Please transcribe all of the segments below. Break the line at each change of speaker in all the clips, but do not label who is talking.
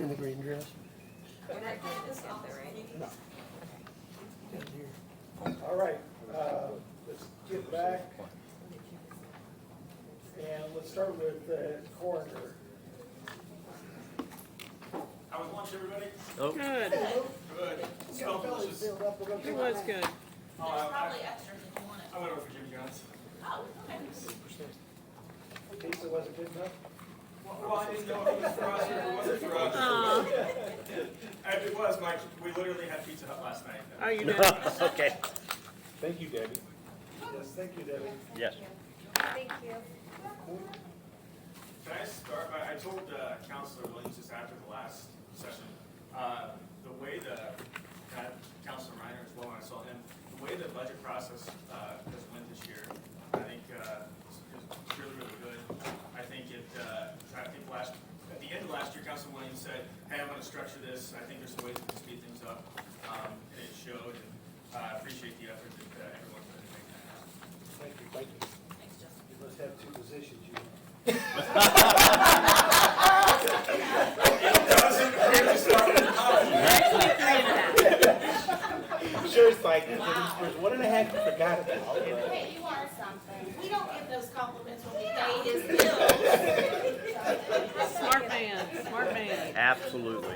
in the green dress.
We're not doing this yet, though, right?
Down here.
All right, uh, let's get back. And let's start with the coroner.
How was lunch, everybody?
Good,
Good. Smell delicious.
Filled up a little
it
bit.
was good.
Oh,
There's
I,
probably extras if you want it.
I went over for Jimmy John's.
Oh, okay.
Pizza wasn't good enough?
Well, I didn't know if it was for us or if it wasn't for us.
Aw,
And it was, Mike, we literally had Pizza Hut last night.
oh, you did.
Okay,
Thank you, Debbie.
Yes, thank you, Debbie.
yes.
Thank you.
Can I start by, I told uh, Counselor Williams just after the last session, uh, the way the, that Counselor Reiner as well, when I saw him, the way the budget process uh, has went this year, I think uh, is is really, really good. I think it, uh, I think last, at the end of last year, Counselor Williams said, hey, I'm gonna structure this, I think there's a way to speed things up. Um, And it showed, and uh, I appreciate the effort that uh, everyone put in making that happen.
Thank you, thank you.
Thanks, Justin.
You must have two positions, you.
Sure, it's like, there's one and a half, you forgot about.
Hey, you are something.
We don't give those compliments when we pay his bills.
Smart man, smart man.
Absolutely.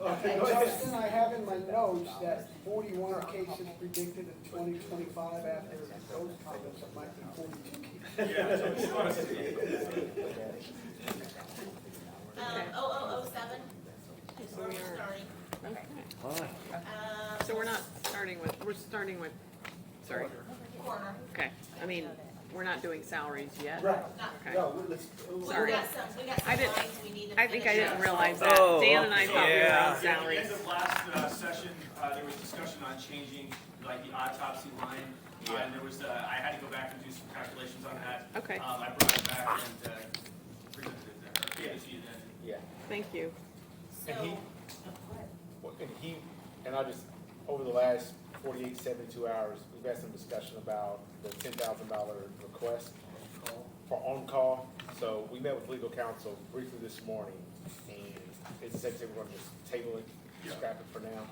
Okay, go ahead.
Justin, I have in my notes that forty-one cases predicted in twenty twenty-five after those comments, it might be forty-two cases.
Yeah, so it's honestly,
Um, oh, oh, oh, seven is where we're starting.
Okay.
Um,
So we're not starting with, we're starting with, sorry,
corner,
okay. I mean, we're not doing salaries yet.
Right,
not,
Okay.
no, let's,
we we
Sorry.
got some, we got
I
some
didn't-
lines we need to finish.
I think I didn't
up.
realize that.
Oh,
Dan and I
So,
thought we were
yeah,
on salaries.
At the end of last uh, session, uh, there was discussion on changing, like, the autopsy line. Uh, And there was, uh, I had to go back and do some calculations on that.
Okay.
Um, I brought it back and uh, presented it there, gave it to you then.
Yeah,
Thank you.
So,
and he, well, and he, and I just, over the last 48, 72 hours, we've had some discussion about the ten thousand dollar request for on-call. So we met with legal counsel briefly this morning, and it's said that we're gonna just table it, scrap it for now.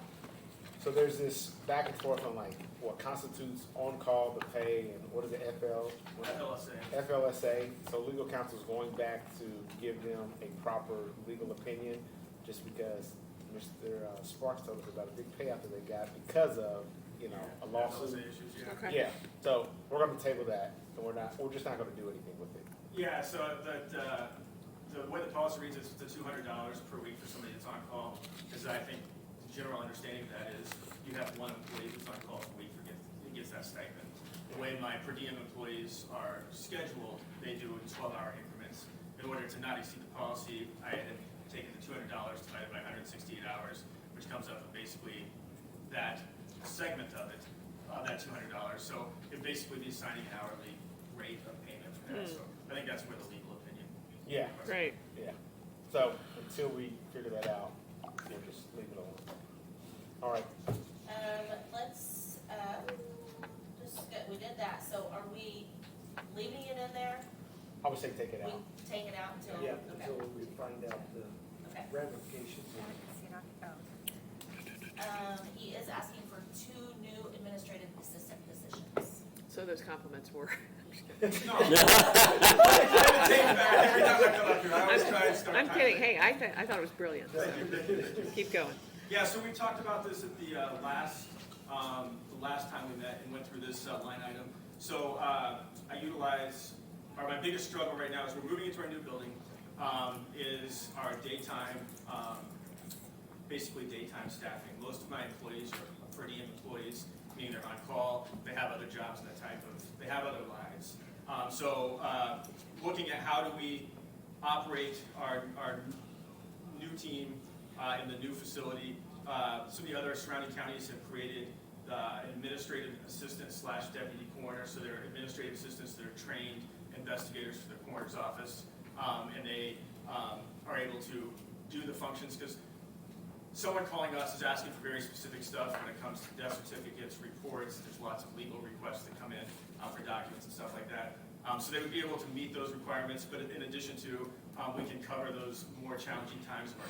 So there's this back and forth on like, what constitutes on-call, the pay, and what is the FL? what-
FLSA.
FLSA, so legal counsel is going back to give them a proper legal opinion, just because Mr. uh, Sparks told us about a big payout that they got because of, you know, a
FLSA
lawsuit.
issues, yeah.
Okay.
Yeah, so we're gonna table that, and we're not, we're just not gonna do anything with it.
Yeah, so the, uh the way the policy reads is the two hundred dollars per week for somebody that's on call, is I think the general understanding of that is you have one employee that's on call per week who gets, who gets that stipend. The way my per diem employees are scheduled, they do in twelve-hour increments. In order to not exceed the policy, I had taken the two hundred dollars divided by hundred and sixty-eight hours, which comes up with basically that segment of it, of that two hundred dollars. So it basically be signing an hourly rate of payment for
Hmm.
that, so I think that's where the legal opinion.
Yeah.
Great.
Yeah, so until we figure that out, we'll just leave it alone. All right,
um, let's, uh, just, get- we did that, so are we leaving it in there?
I would say take it
We
out.
take it out until,
yeah,
okay,
until we find out the
okay.
ramifications.
Um, he is asking for two new administrative assistant positions.
So those compliments were,
No. I would take it back every time I come up here, I always try to start.
I'm
time.
kidding. Hey, I, thi- I thought it was brilliant. Keep going.
Yeah, so we talked about this at the uh, last, um, the last time we met and went through this uh, line item. So uh, I utilize, or my biggest struggle right now is we're moving into our new building, um, is our daytime, um, basically daytime staffing. Most of my employees are per diem employees, meaning they're on call, they have other jobs and that type of, they have other lives. Um, So uh, looking at how do we operate our, our new team uh, in the new facility. Uh, Some of the other surrounding counties have created uh, administrative assistant slash deputy coroner, so they're administrative assistants that are trained investigators for the coroner's office, um, and they um, are able to do the functions, because someone calling us is asking for very specific stuff when it comes to death certificates, reports, there's lots of legal requests that come in uh, for documents and stuff like that. Um, So they would be able to meet those requirements, but in addition to, um, we can cover those more challenging times of our